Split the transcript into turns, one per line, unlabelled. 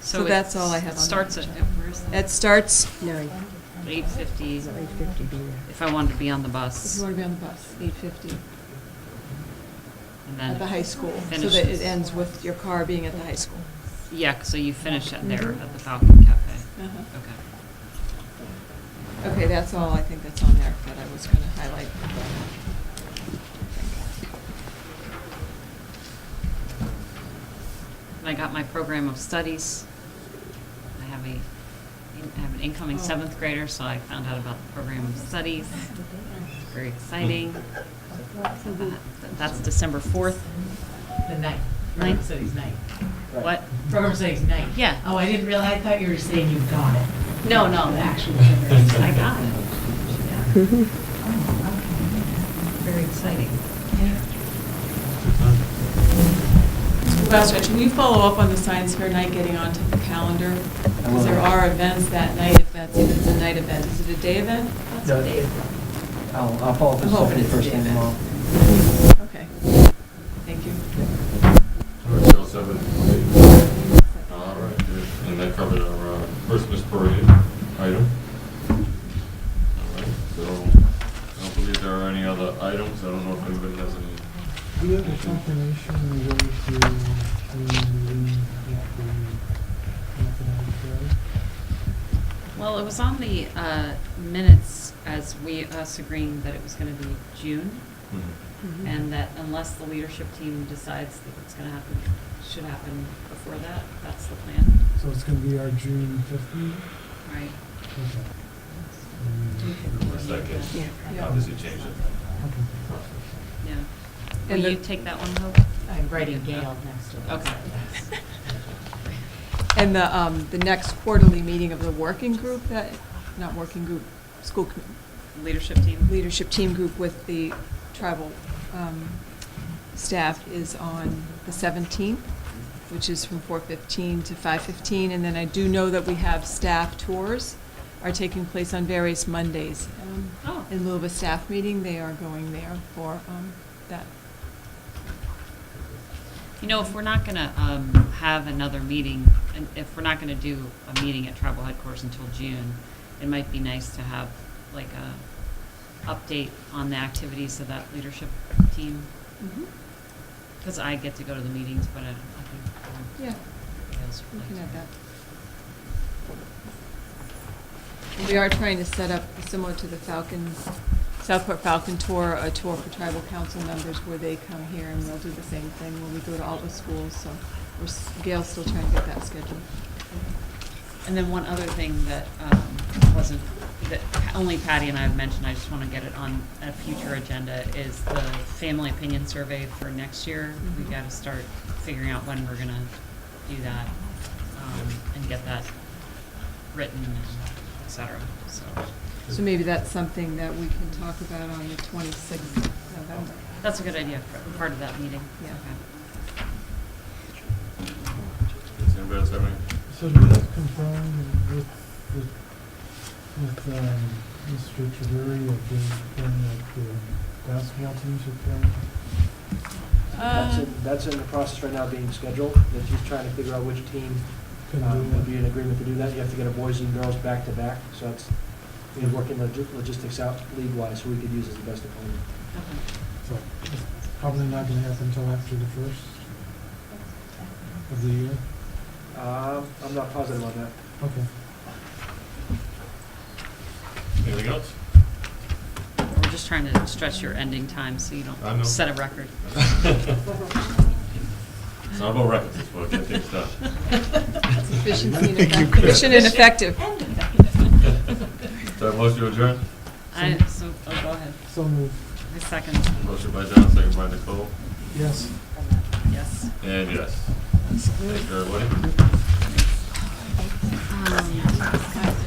So
So
it
that's all I have on that.
Starts at, where's
It
that?
starts,
Nine,
Eight fifty,
so eight fifty be there.
if I wanted to be on the
if
bus.
you want to be on the bus, eight fifty,
and then
at the high school, so that
finishes-
it ends with your car being at the high school.
Yeah, so you finish it there
Mhm.
at the Falcon Cafe.
Uh-huh.
Okay.
Okay, that's all, I think that's on there that I was going to highlight.
And I got my program of studies. I have a, I have an incoming
Oh.
seventh grader, so I found out about the program of studies. It's Very exciting. Uh, That's December fourth.
The night,
Night?
program studies night.
What?
Program studies night.
Yeah.
Oh, I didn't realize, I thought you were saying you got it.
No, no,
The actual.
I
program.
got it. Very exciting.
Last one, can you follow up on the science fair night, getting onto the calendar? Because there are events that night, if that's, if it's a night event, is it a day event?
That's a day. I'll, I'll follow up
I'm
with
hoping
Stephanie
it's a
first
day
thing tomorrow.
event. Okay, thank you.
Alright, sounds like it. All right, good. And that covered our uh, Christmas parade item. All right, so I don't believe there are any other items. I don't know if anybody has any.
Do you have a confirmation of where to, um, if we, if
Well, it was on the uh, minutes as we, us agreeing that it was going to be June,
Mm-hmm. Mhm.
and that unless the leadership team decides that it's going to happen, should happen before that, that's the plan,
So it's gonna be our June fifth meeting?
right?
Okay.
Unless that gets
Yeah.
obviously changed it.
Okay.
Yeah. Will
And the-
you take that one, Hope?
I'm writing Gail next to it.
Okay.
And the, um, the next quarterly meeting of the working group that, not working group, school com-
Leadership team?
leadership team group with the tribal, um, staff is on the seventeenth, which is from four fifteen to five fifteen, and then I do know that we have staff tours are taking place on various Mondays. Um,
Oh.
In lieu of a staff meeting, they are going there for, um, that.
You know, if we're not going to have another meeting, and if we're not going to do a meeting at tribal headquarters until June, it might be nice to have like a update on the activities of that leadership team,
Mm-hmm.
because I get to go to the meetings, but I don't, I think.
Yeah,
everybody else
we
would
can
like
add
to.
that. And We are trying to set up, similar to the Falcon, Southport Falcon Tour, a tour for tribal council members where they come here and they'll do the same thing when we go to all the schools, so we're, s- Gail's still trying to get that scheduled.
And then one other thing that um, wasn't, that only Patty and I have mentioned, I just want to get it on a future agenda, is the family opinion survey for next year. We've
Mhm.
got to start figuring out when we're going to do that um, and get that written, and et cetera, so.
So maybe that's something that we can talk about on the twenty-sixth of November.
That's a good idea, for part of that meeting.
Yeah.
Okay.
Does anybody else have any?
So did that confirm with, with, with, um, Mr. Taveri of the, of the basketball teams are
Uh,
playing?
That's in, that's in the process right now being scheduled, that she's trying to figure out which team
Can do
um, would be
that?
in agreement to do that. You have to get a boys and girls back to back, so it's, we're working logi- logistics out league-wise, so we could use as the best opponent.
So it's Probably not gonna happen until after the first of the year?
Um, I'm not positive on that.
Okay.
Anything else?
We're just trying to stretch your ending time so you
I know.
don't set a record.
It's not about records, it's about getting things done.
It's efficiency and
Thank you,
effective.
Chris.
Efficient and effective.
So I motion to adjourn?
I, so, oh, go ahead.
So moved.
I second,
Motion by John, second by Nicole.
Yes.
yes.
And yes. Thank you, everybody.
Um,